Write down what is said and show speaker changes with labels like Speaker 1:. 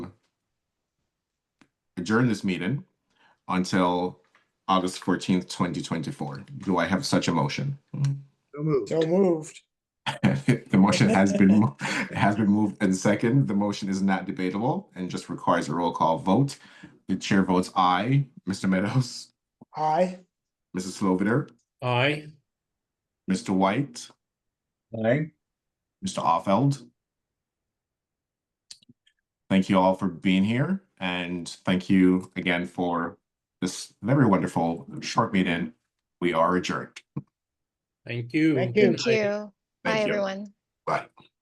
Speaker 1: adjourn this meeting until August fourteenth, twenty twenty-four. Do I have such a motion?
Speaker 2: So moved.
Speaker 3: So moved.
Speaker 1: The motion has been, mo- has been moved and second. The motion is not debatable and just requires a roll call vote. The chair votes aye. Mr. Meadows,
Speaker 3: Aye.
Speaker 1: Mrs. Sloviter,
Speaker 4: Aye.
Speaker 1: Mr. White,
Speaker 5: Aye.
Speaker 1: Mr. Offeld. Thank you all for being here and thank you again for this very wonderful short meeting. We are adjourned.
Speaker 4: Thank you.
Speaker 3: Thank
Speaker 4: Good
Speaker 3: you.
Speaker 4: night.
Speaker 6: Thank you. Bye,
Speaker 1: Thank you.
Speaker 6: everyone.
Speaker 1: Bye.